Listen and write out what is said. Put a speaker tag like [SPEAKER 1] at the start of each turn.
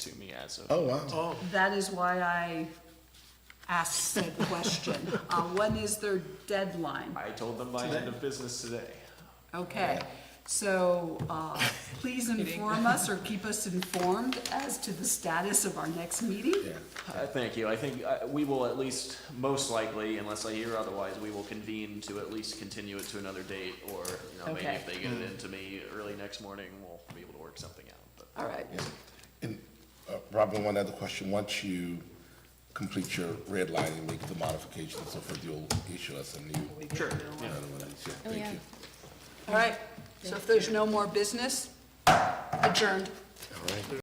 [SPEAKER 1] as of.
[SPEAKER 2] Oh, wow.
[SPEAKER 3] Oh,
[SPEAKER 4] That is why I asked said question. Uh, when is their deadline?
[SPEAKER 1] I told them by end of business today.
[SPEAKER 4] Okay, so, uh, please inform us or keep us informed as to the status of our next meeting.
[SPEAKER 2] Yeah.
[SPEAKER 1] Uh, Thank you. I think uh, we will at least, most likely, unless I hear otherwise, we will convene to at least continue it to another date, or, you know, maybe
[SPEAKER 4] Okay.
[SPEAKER 1] if they get it into me early next morning, we'll be able to work something out, but.
[SPEAKER 4] All right,
[SPEAKER 2] And, uh, Robin, one other question. Once you complete your red line and make the modifications and so forth, you'll issue us a new.
[SPEAKER 1] Sure.
[SPEAKER 2] another one. Yeah,
[SPEAKER 5] yeah.
[SPEAKER 2] Thank you.
[SPEAKER 4] all right. So if there's no more business, adjourned.
[SPEAKER 2] All right.